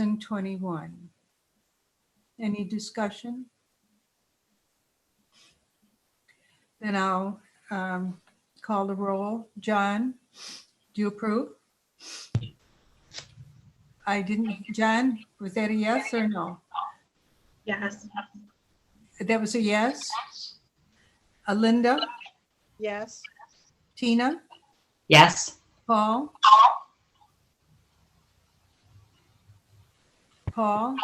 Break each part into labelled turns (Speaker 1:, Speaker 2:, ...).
Speaker 1: 2021. Any discussion? Then I'll um, call the roll. John, do you approve? I didn't, John, was that a yes or no?
Speaker 2: Yes.
Speaker 1: That was a yes? Alinda,
Speaker 2: Yes.
Speaker 1: Tina,
Speaker 3: Yes.
Speaker 1: Paul? Paul?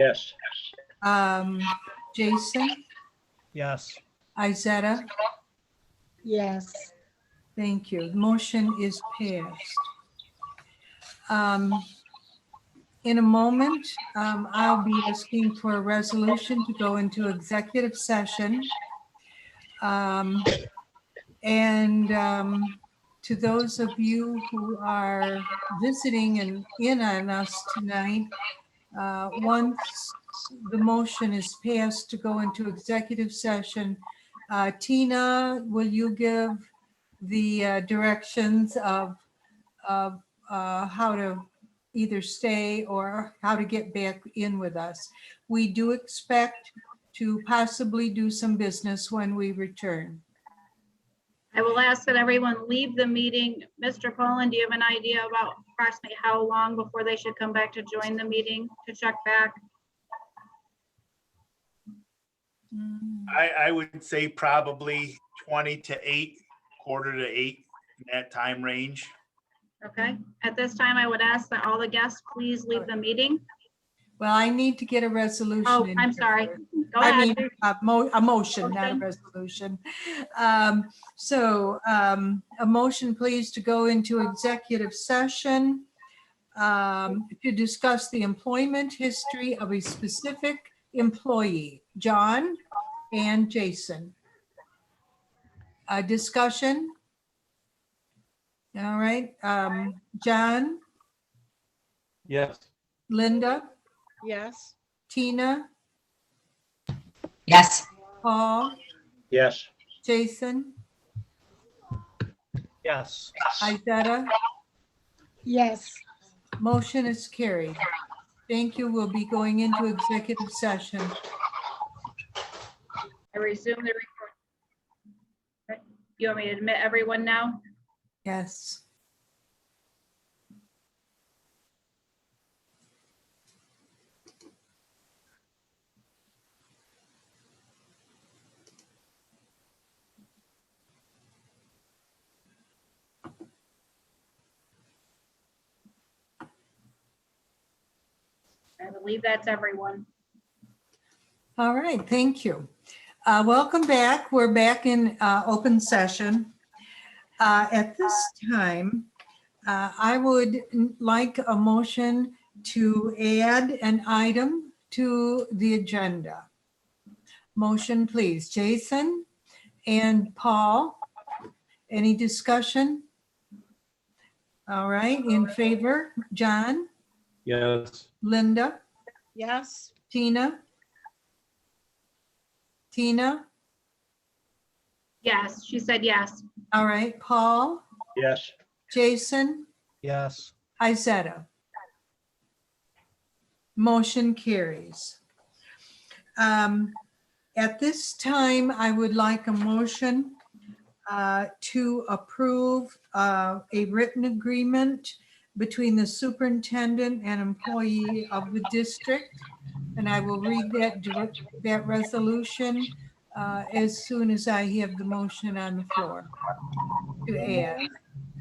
Speaker 4: Yes.
Speaker 1: Um, Jason,
Speaker 4: Yes.
Speaker 1: Izetta,
Speaker 2: Yes.
Speaker 1: thank you. Motion is passed. Um, in a moment, um, I'll be asking for a resolution to go into executive session. Um, and, um, to those of you who are visiting and in on us tonight, uh, once the motion is passed to go into executive session, uh, Tina, will you give the uh, directions of, of uh, how to either stay or how to get back in with us. We do expect to possibly do some business when we return.
Speaker 2: I will ask that everyone leave the meeting. Mr. Poland, do you have an idea about approximately how long before they should come back to join the meeting to check back?
Speaker 5: I, I would say probably twenty to eight, quarter to eight, in that time range.
Speaker 2: Okay, at this time, I would ask that all the guests please leave the meeting.
Speaker 1: Well, I need to get a resolution.
Speaker 2: Oh,
Speaker 1: in
Speaker 2: I'm
Speaker 1: here
Speaker 2: sorry.
Speaker 1: first.
Speaker 2: Go
Speaker 1: I
Speaker 2: ahead.
Speaker 1: mean, a mo- a motion, not a
Speaker 2: Oh, Motion.
Speaker 1: resolution. Um, So um, a motion, please, to go into executive session um, to discuss the employment history of a specific employee, John and Jason. A discussion? All right, um, John,
Speaker 4: Yes.
Speaker 1: Linda,
Speaker 6: Yes.
Speaker 1: Tina,
Speaker 3: Yes.
Speaker 1: Paul,
Speaker 4: Yes.
Speaker 1: Jason,
Speaker 4: Yes.
Speaker 1: Izetta.
Speaker 6: Yes.
Speaker 1: Motion is carried. Thank you. We'll be going into executive session.
Speaker 2: I resume the recording. Okay, You want me to admit everyone now?
Speaker 1: Yes.
Speaker 2: I believe that's everyone.
Speaker 1: All right, thank you. Uh, Welcome back. We're back in uh, open session. Uh, At this time, uh, I would like a motion to add an item to the agenda. Motion, please. Jason and Paul, any discussion? All right, in favor? John,
Speaker 4: Yes.
Speaker 1: Linda,
Speaker 6: Yes.
Speaker 1: Tina? Tina?
Speaker 2: Yes, she said yes.
Speaker 1: All right, Paul,
Speaker 4: Yes.
Speaker 1: Jason,
Speaker 4: Yes.
Speaker 1: Izetta. Motion carries. Um, At this time, I would like a motion uh, to approve uh, a written agreement between the superintendent and employee of the district. And I will read that, direct- that resolution uh, as soon as I have the motion on the floor to add.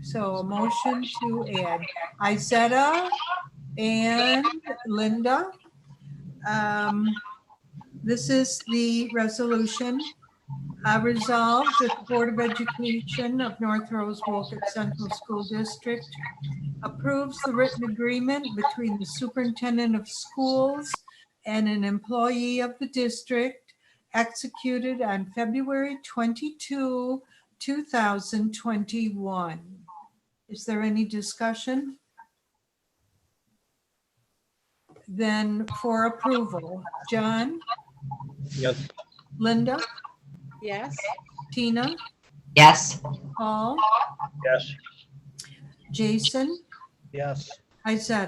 Speaker 1: So a motion to add Izetta and Linda. Um, This is the resolution. I resolve that the Board of Education of North Rose Wolfett Central School District approves the written agreement between the superintendent of schools and an employee of the district executed on February 22, 2021. Is there any discussion? Then for approval, John,
Speaker 4: Yes.
Speaker 1: Linda,
Speaker 6: Yes.
Speaker 1: Tina,
Speaker 3: Yes.
Speaker 1: Paul,
Speaker 4: Yes.
Speaker 1: Jason,
Speaker 4: Yes.
Speaker 1: Izetta.